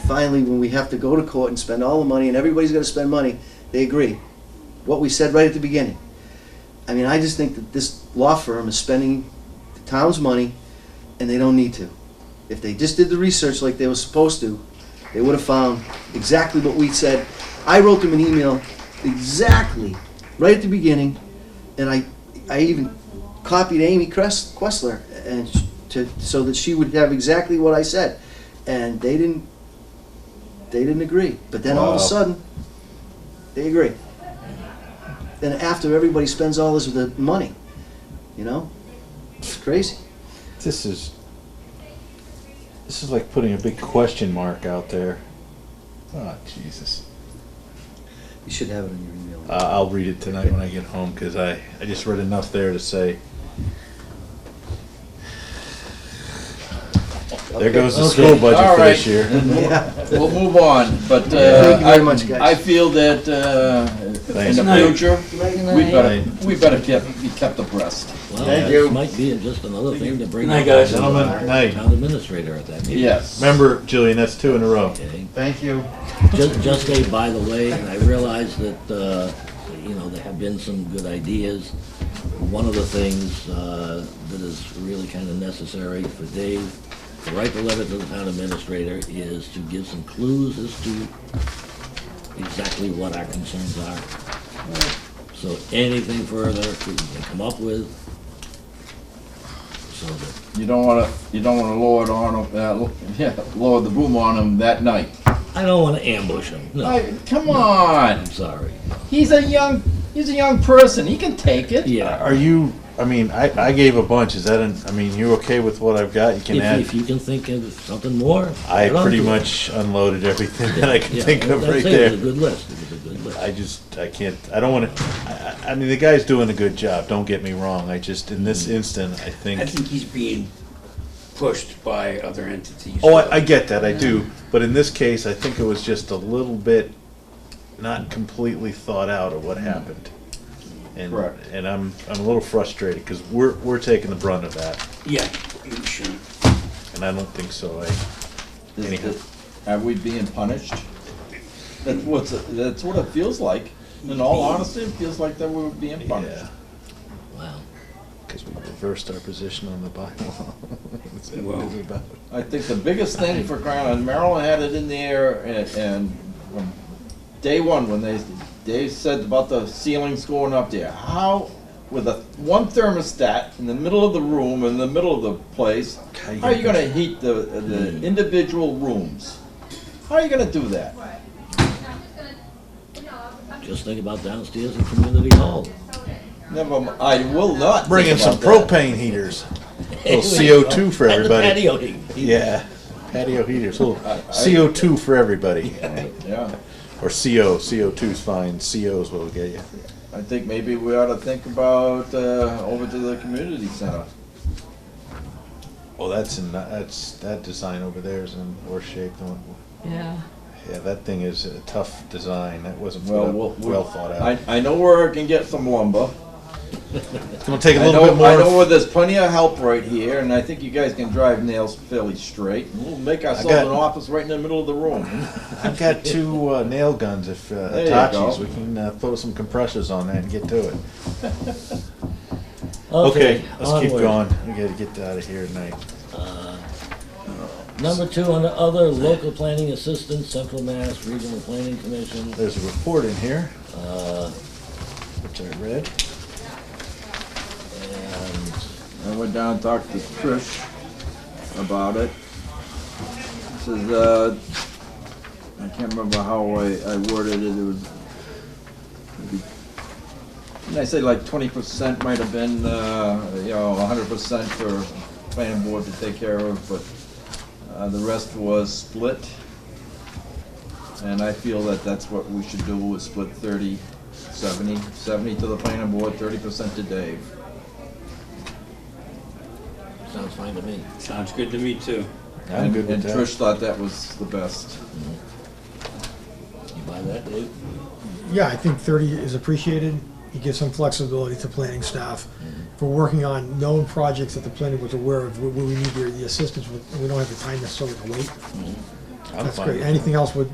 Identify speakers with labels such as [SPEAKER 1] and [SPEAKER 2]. [SPEAKER 1] finally, when we have to go to court and spend all the money, and everybody's gonna spend money, they agree. What we said right at the beginning. I mean, I just think that this law firm is spending the town's money, and they don't need to. If they just did the research like they were supposed to, they would have found exactly what we said. I wrote them an email exactly, right at the beginning, and I, I even copied Amy Crest, Questler, and sh- to, so that she would have exactly what I said. And they didn't, they didn't agree. But then all of
[SPEAKER 2] Wow.
[SPEAKER 1] a sudden, they agree. And after everybody spends all this the money, you know, it's crazy.
[SPEAKER 2] This is this is like putting a big question mark out there. Oh Jesus!
[SPEAKER 1] You should have it in your email.
[SPEAKER 2] Uh, I'll read it tonight when I get home because I I just read enough there to say there goes the school
[SPEAKER 3] Okay,
[SPEAKER 2] budget
[SPEAKER 3] all
[SPEAKER 2] for this
[SPEAKER 3] right.
[SPEAKER 2] year.
[SPEAKER 1] Yeah,
[SPEAKER 3] We'll move on, but uh,
[SPEAKER 1] Thank you very
[SPEAKER 3] I-
[SPEAKER 1] much, guys.
[SPEAKER 3] I feel that uh, in
[SPEAKER 2] Thanks,
[SPEAKER 3] the
[SPEAKER 2] Mike.
[SPEAKER 3] future, we better, we better kept- be kept abreast.
[SPEAKER 4] Well,
[SPEAKER 1] Thank
[SPEAKER 4] that
[SPEAKER 1] you.
[SPEAKER 4] might be just another thing to bring
[SPEAKER 5] Good night,
[SPEAKER 4] up
[SPEAKER 5] guys.
[SPEAKER 4] to the
[SPEAKER 2] Gentlemen, good night.
[SPEAKER 4] Town administrator at that meeting.
[SPEAKER 3] Yes.
[SPEAKER 2] Remember, Jillian, that's two in a row.
[SPEAKER 4] Okay,
[SPEAKER 1] Thank you.
[SPEAKER 4] just, just a by the way, and I realize that, uh, you know, there have been some good ideas. One of the things, uh, that is really kind of necessary for Dave to write the letter to the town administrator is to give some clues as to exactly what our concerns are. So anything further we can come up with, so that
[SPEAKER 3] You don't wanna, you don't wanna lower it on, 'em, uh, lo- yeah, lower the boom on him that night.
[SPEAKER 4] I don't want to ambush him. No,
[SPEAKER 3] I- Come on,
[SPEAKER 4] I'm sorry.
[SPEAKER 3] he's a young, he's a young person, he can take it.
[SPEAKER 4] Yeah.
[SPEAKER 2] Are you? I mean, I, I gave a bunch. Is that? An, I mean, you okay with what I've got? You can
[SPEAKER 4] If,
[SPEAKER 2] add.
[SPEAKER 4] if you can think of something more,
[SPEAKER 2] I
[SPEAKER 4] get on
[SPEAKER 2] pretty
[SPEAKER 4] to it.
[SPEAKER 2] much unloaded everything that I could
[SPEAKER 4] Yeah,
[SPEAKER 2] think of
[SPEAKER 4] that's
[SPEAKER 2] right
[SPEAKER 4] it. It was
[SPEAKER 2] there.
[SPEAKER 4] a good list. It was a good list.
[SPEAKER 2] I just, I can't, I don't want to, I, I- I mean, the guy's doing a good job, don't get me wrong. I just, in this instant, I
[SPEAKER 5] I
[SPEAKER 2] think,
[SPEAKER 5] think he's being pushed by other entities.
[SPEAKER 2] oh, I, I get that, I do. But in this case, I think it was just a little bit not completely thought out of what happened. And,
[SPEAKER 3] Mm-hmm. Correct.
[SPEAKER 2] and I'm, I'm a little frustrated because we're, we're taking the brunt of that.
[SPEAKER 5] Yeah, you shouldn't.
[SPEAKER 2] And I don't think so. I,
[SPEAKER 3] Is-
[SPEAKER 2] Anyhow.
[SPEAKER 3] is- Are we being punished? That's what's, that's what it feels like, in all honesty, it feels like that we're being punished.
[SPEAKER 2] yeah,
[SPEAKER 4] Wow.
[SPEAKER 2] because we reversed our position on the bylaw. That's what it
[SPEAKER 5] Well.
[SPEAKER 2] is about.
[SPEAKER 3] I think the biggest thing for crying, and Maryland had it in the air, and, and from day one, when they, they said about the ceilings going up there, how, with a, one thermostat in the middle of the room, in the middle of the place,
[SPEAKER 2] How you
[SPEAKER 3] how are you
[SPEAKER 2] gonna-
[SPEAKER 3] gonna heat the,
[SPEAKER 2] Hmm.
[SPEAKER 3] the individual rooms? How are you gonna do that?
[SPEAKER 4] Just think about downstairs in community hall.
[SPEAKER 3] Never, m- I will not.
[SPEAKER 2] Bring in
[SPEAKER 3] think
[SPEAKER 2] some
[SPEAKER 3] about that.
[SPEAKER 2] propane heaters. Little CO2 for
[SPEAKER 4] And the
[SPEAKER 2] everybody.
[SPEAKER 4] patio heat.
[SPEAKER 2] Yeah, patio heaters, little CO2 for everybody.
[SPEAKER 3] Yeah,
[SPEAKER 2] Or CO, CO2's fine, CO's what'll get you.
[SPEAKER 3] I think maybe we ought to think about, uh, over to the community center.
[SPEAKER 2] Oh, that's in, that's, that design over there is in worse shape than, what-
[SPEAKER 6] Yeah.
[SPEAKER 2] yeah, that thing is a tough design, that wasn't
[SPEAKER 3] Well,
[SPEAKER 2] well,
[SPEAKER 3] we'll-
[SPEAKER 2] well thought
[SPEAKER 3] I,
[SPEAKER 2] out.
[SPEAKER 3] I know where I can get some lumber.
[SPEAKER 2] It's gonna take a
[SPEAKER 3] I
[SPEAKER 2] little bit
[SPEAKER 3] know, I know where
[SPEAKER 2] more,
[SPEAKER 3] there's plenty of help right here, and I think you guys can drive nails fairly straight. and We'll make ourselves
[SPEAKER 2] got-
[SPEAKER 3] an office right in the middle of the room.
[SPEAKER 2] I've got two uh, nail guns if, uh,
[SPEAKER 3] There you go.
[SPEAKER 2] Hitachi's, we can uh, throw some compressors on that and get to it.
[SPEAKER 4] Okay,
[SPEAKER 2] Okay, let's keep
[SPEAKER 4] onward.
[SPEAKER 2] going, we gotta get out of here tonight.
[SPEAKER 4] Number two, under other local planning assistance, Central Mass Regional Planning Commission.
[SPEAKER 2] There's a report in here,
[SPEAKER 4] Uh,
[SPEAKER 2] which I read.
[SPEAKER 3] I
[SPEAKER 4] and
[SPEAKER 3] went down and talked to Trish about it. This is, uh, I can't remember how I, I worded it, it was, maybe- didn't I say like twenty percent might have been, uh, you know, hundred percent for planning board to take care of, but, uh, the rest was split. And I feel that that's what we should do, is split 30, 70, 70 to the planning board, thirty percent to Dave.
[SPEAKER 4] sounds fine to me.
[SPEAKER 5] Sounds good to me, too.
[SPEAKER 2] I'm good with
[SPEAKER 3] And
[SPEAKER 2] that.
[SPEAKER 3] Trish thought that was the best.
[SPEAKER 4] You buy that, Dave?
[SPEAKER 7] Yeah, I think 30 is appreciated. It gives some flexibility to planning staff. If we're working on known projects that the planning was aware of, where where we need the the assistance, with, we don't have the time necessarily to wait.
[SPEAKER 2] I'm
[SPEAKER 7] That's
[SPEAKER 2] fine
[SPEAKER 7] great.
[SPEAKER 2] with
[SPEAKER 7] Anything else would,